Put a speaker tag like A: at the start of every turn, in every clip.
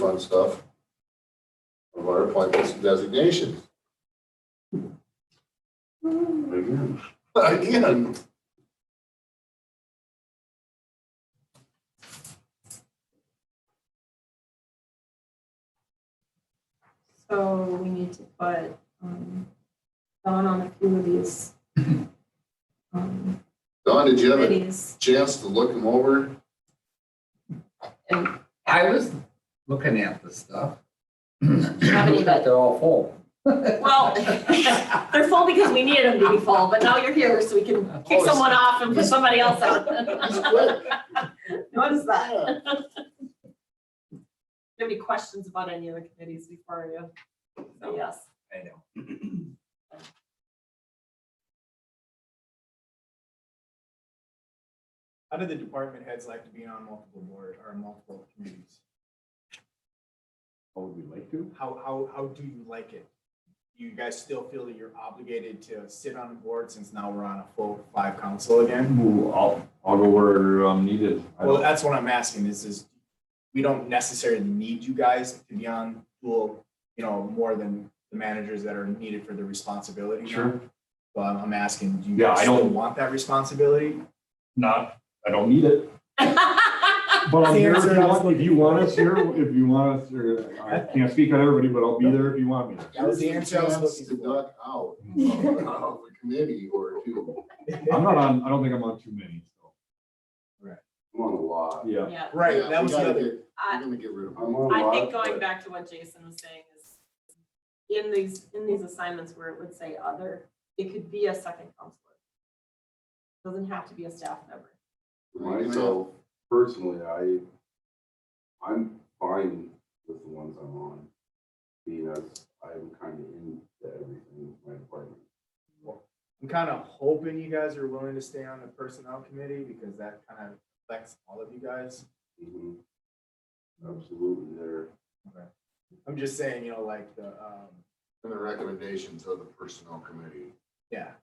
A: fun stuff. Of our appointments and designations.
B: Again,
A: Again.
C: So we need to put, um, Dawn on a few of these, um,
A: Don, did you have a
C: committees.
A: chance to look them over?
D: I was looking at the stuff.
C: How many?
D: Looks like They're all full.
C: Well, they're full because we needed them to be full, but now you're here, so we can kick
A: Oh,
C: someone off and put somebody else
A: Just
C: on.
A: quit.
C: Notice that.
A: Yeah.
C: Do you have any questions about any of the committees before you? say Yes.
D: I know.
E: How do the department heads like to be on multiple board or multiple committees?
B: what would we like to?
E: How, how, how do you like it? Do you guys still feel that you're obligated to sit on the board since now we're on a full five council again?
B: Ooh, I'll, I'll go where I'm needed. I
E: Well,
B: don't-
E: that's what I'm asking is, is we don't necessarily need you guys to be on dual, you know, more than the managers that are needed for the responsibility. now.
B: Sure,
E: But I'm- I'm asking, do you
B: Yeah,
E: guys
B: I don't-
E: still want that responsibility?
B: not, I don't need it, but I'm here if you want, if you want us here, if you want us, or, I can't speak on everybody, but I'll be there if you want me.
E: That was the answer I was
A: Chance to
E: looking for.
A: duck out of the committee or two.
B: I'm not on, I don't think I'm on too many, so.
A: I'm on a lot.
B: Yeah.
C: Yeah,
A: Yeah,
E: Right, that
A: we
E: was the
A: gotta
E: other.
A: get-
C: I,
A: We're gonna get rid of
B: I'm
A: them.
B: on a
C: I think
B: lot,
C: going
B: but-
C: back to what Jason was saying is in these, in these assignments where it would say other, it could be a second counselor. Doesn't have to be a staff member.
F: Myself, personally, I, I'm fine with the ones I'm on. Being as I'm kind of into everything with my department.
E: I'm kind of hoping you guys are willing to stay on the personnel committee because that kind of affects all of you guys.
F: Mhm. Absolutely there.
E: I'm just saying, you know, like the, um,
A: And the recommendations of the personnel committee.
E: yeah.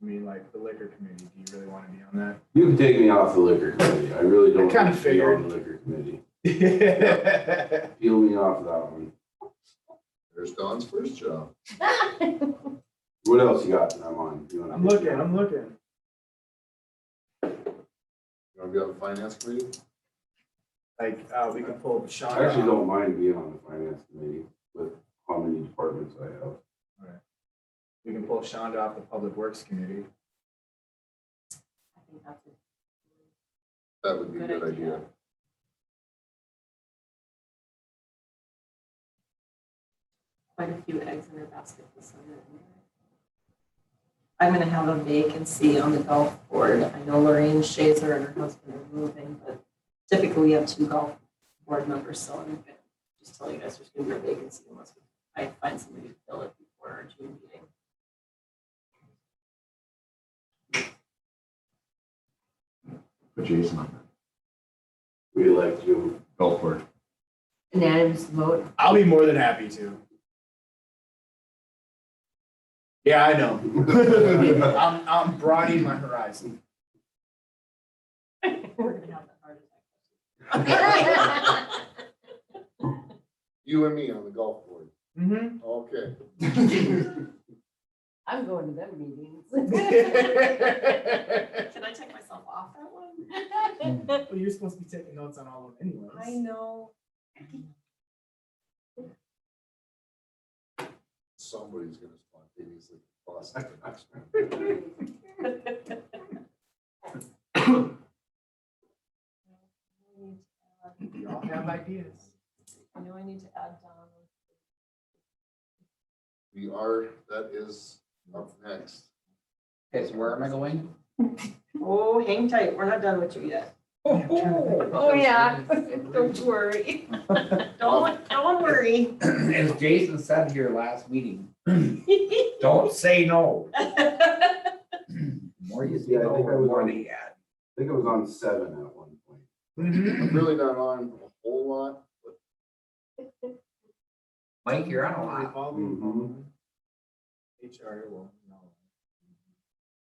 E: I mean, like the liquor committee, do you really want to be on
F: You can take me off the liquor committee. I really don't.
E: kinda
F: want to be on the Liquor committee.
E: that?
F: Peel me off that one.
A: There's Don's first job.
F: What else you got that I'm on? You wanna-
E: I'm looking, I'm looking.
A: You wanna be on the finance committee?
E: Like, uh, we can pull Sean.
F: I actually don't mind being on the finance committee with how many departments I have.
E: We can pull Shonda off the Public Works Committee.
C: I think that's a
A: That would be a
C: Good
A: good idea.
C: quite a few eggs in her basket this summer. I'm gonna have a vacancy on the golf board. I know Lorraine Shazer and her husband are moving, but typically we have two golf board members, so I'm gonna just tell you guys there's gonna be a vacancy unless we- I find somebody to fill it before our June meeting.
B: Put Jason on
F: We elect you.
B: that golf board.
G: unanimous vote.
E: I'll be more than happy to. Yeah, I know. I'm, I'm broadening my horizon.
C: We're gonna have the hardest.
A: You and me on the golf board.
E: Mm-hmm.
A: Okay.
G: I'm going to them meetings.
E: Well,
C: Can I take myself off that one?
E: you're supposed to be taking notes on all of them
C: I
E: anyways.
C: know.
A: Somebody's gonna spontaneously bust.
E: You all have ideas.
C: I know I need to add Don.
A: We are, that is up next.
D: Okay, so where am I going?
C: Oh, hang tight, we're not done with you yet.
G: Oh, yeah, don't worry.
C: Don't, don't worry.
D: As Jason said here last meeting, don't say no. The More you say
F: Yeah, I
D: no,
F: think I
D: the
F: was
D: more
F: on-
D: they add.
F: I think I was on seven at one point.
E: Mm-hmm.
A: I'm really not on a whole lot.
D: Mike, you're on a lot. Mm-hmm.
E: Revolving loan, HR, well,